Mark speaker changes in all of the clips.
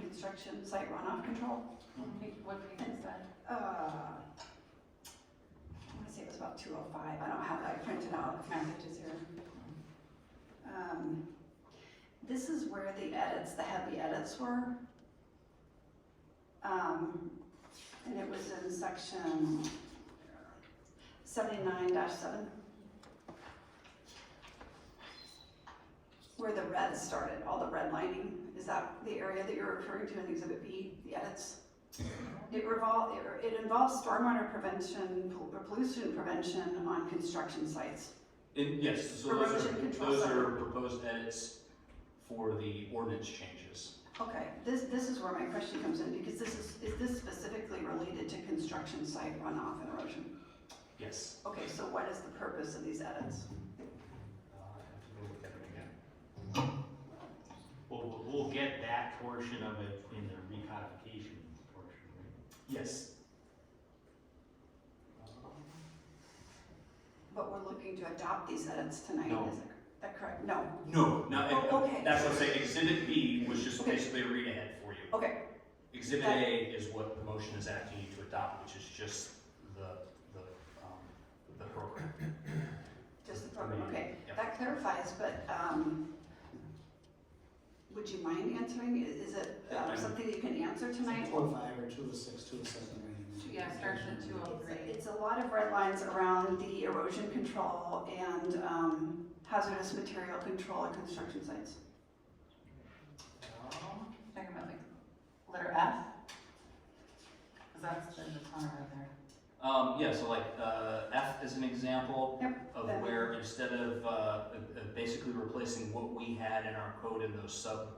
Speaker 1: construction site runoff control.
Speaker 2: What page, what page is that?
Speaker 1: Uh, I want to say it was about 205, I don't have that printed out, the package is here. Um, This is where the edits, the heavy edits were. Um, And it was in section 79-7. Where the red started, all the redlining, is that the area that you're referring to in Exhibit B, the edits? It revol, it- it involves stormwater prevention, pol- pollution prevention on construction sites.
Speaker 3: And yes, so those
Speaker 1: Erosion
Speaker 3: are,
Speaker 1: control
Speaker 3: those
Speaker 1: center.
Speaker 3: are proposed edits for the ordinance changes.
Speaker 1: Okay, this, this is where my question comes in, because this is, is this specifically related to construction site runoff and erosion?
Speaker 3: Yes.
Speaker 1: Okay, so what is the purpose of these edits?
Speaker 3: Uh, I have to go look at it again.
Speaker 4: Well, we'll- we'll get that portion of it in the recodification portion, right?
Speaker 3: Yes.
Speaker 1: But we're looking to adopt these edits tonight,
Speaker 3: No.
Speaker 1: is that- that correct? No,
Speaker 3: No, not,
Speaker 1: Oh, okay.
Speaker 3: that's what I'm saying, exhibit B was just
Speaker 1: Okay.
Speaker 3: basically a read ahead for you.
Speaker 1: okay,
Speaker 3: Exhibit
Speaker 1: That-
Speaker 3: A is what the motion is asking you to adopt, which is just the, the, um, the program.
Speaker 1: just the program, okay.
Speaker 3: Yep.
Speaker 1: That clarifies, but, um, would you mind answering? I- Is it
Speaker 3: Yeah,
Speaker 1: um,
Speaker 3: I'm-
Speaker 1: something that you can answer tonight?
Speaker 5: Two oh five or two oh six, two oh seven, right?
Speaker 2: Yeah, it starts at two oh three.
Speaker 1: It's a lot of red lines around the erosion control and um, hazardous material control at construction sites.
Speaker 2: Talking about like letter F? Cause that's the corner right there.
Speaker 3: Um, yeah, so like, uh, F is an example
Speaker 1: Yep,
Speaker 3: of
Speaker 1: that-
Speaker 3: where instead of, uh, uh, basically replacing what we had in our code in those sub,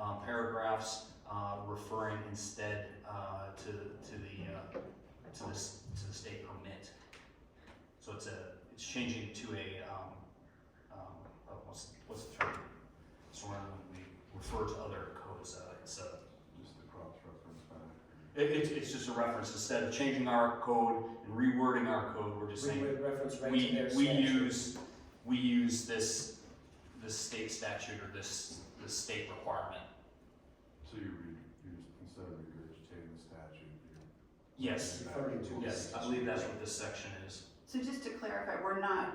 Speaker 3: um, paragraphs, uh, referring instead, uh, to, to the, uh, to this, to the state permit. So it's a, it's changing to a, um, um, uh, what's, what's the term? So when we refer to other codes, uh, it's a,
Speaker 6: Just the cross reference back.
Speaker 3: it, it's, it's just a reference, instead of changing our code and rewording our code, we're just saying,
Speaker 5: We would reference right to
Speaker 3: we,
Speaker 5: their
Speaker 3: we
Speaker 5: statute.
Speaker 3: use, we use this, this state statute or this, this state requirement.
Speaker 6: So you re, you, instead of regurgitating the statute, you.
Speaker 3: Yes,
Speaker 5: Referring to.
Speaker 3: yes, I believe that's what this section is.
Speaker 1: So just to clarify, we're not,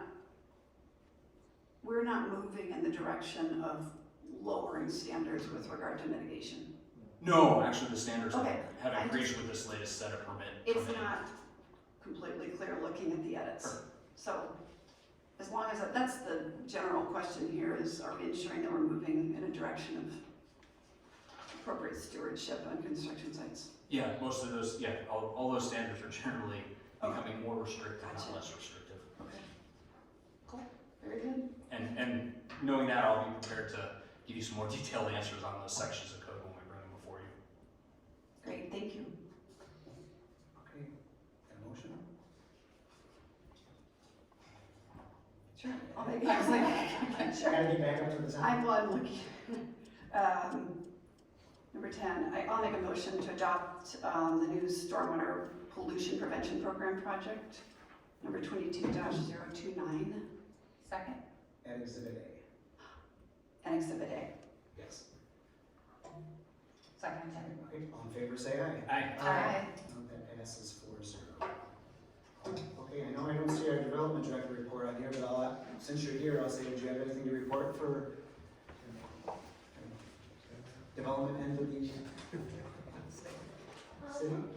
Speaker 1: we're not moving in the direction of lowering standards with regard to mitigation.
Speaker 3: No, actually, the standards
Speaker 1: Okay,
Speaker 3: have
Speaker 1: I
Speaker 3: agreed with this latest set of permit.
Speaker 1: It's
Speaker 3: permitting.
Speaker 1: not completely clear looking at the edits.
Speaker 3: Sure.
Speaker 1: So as long as, that's the general question here is, are we ensuring that we're moving in a direction of appropriate stewardship on construction sites?
Speaker 3: Yeah, most of those, yeah, all, all those standards are generally becoming more restrictive,
Speaker 1: Gotcha.
Speaker 3: not less restrictive.
Speaker 1: Very good.
Speaker 3: And, and knowing that, I'll be prepared to give you some more detailed answers on those sections of code when we bring them before you.
Speaker 1: Great, thank you.
Speaker 5: Okay, got a motion?
Speaker 1: Sure. I'll make, I was like,
Speaker 5: I
Speaker 1: sure.
Speaker 5: gotta get back up to the top.
Speaker 1: I'm one looking. Um, Number ten, I, I'll make a motion to adopt, um, the new stormwater pollution prevention program project, number twenty-two 29
Speaker 2: Second?
Speaker 5: At exhibit
Speaker 1: and exhibit A.
Speaker 5: A, yes.
Speaker 2: Second, yeah.
Speaker 5: Okay, all in favor, say aye.
Speaker 3: Aye.
Speaker 5: No, That passes four zero. Okay, I know I don't see our development director report on here, but I'll, uh, since you're here, I'll say, do you have anything to report for uh, development end of the city?
Speaker 7: Um,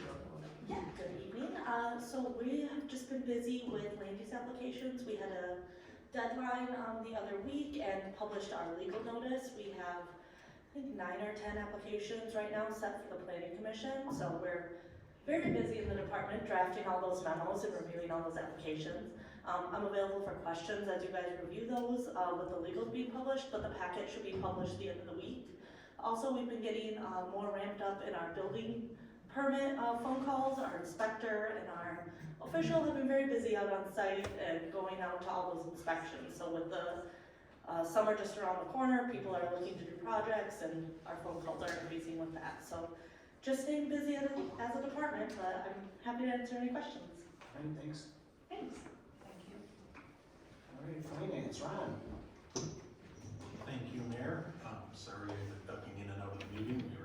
Speaker 7: Yeah, good evening. Uh, so we have just been busy with land use applications. We had a deadline, um, the other week and published our legal notice. We have, I think, nine or ten applications right now set for the planning commission, so we're very busy in the department drafting all those memos and reviewing all those applications. Um, I'm available for questions as you guys review those, uh, with the legals being published, but the packet should be published the end of the week. Also, we've been getting, uh, more ramped up in our building permit uh, phone calls, our inspector and our official have been very busy out on site and going out to all those inspections. So with the uh, summer just around the corner, people are looking to do projects and our phone calls are increasing with that. So just staying busy as a, as a department, but I'm happy to answer any questions.
Speaker 5: All right, thanks.
Speaker 2: Thanks. Thank you.
Speaker 5: All right, finance, Ron.
Speaker 8: Thank you, Mayor. Um, Sorry I've been ducking in and out of the meeting. We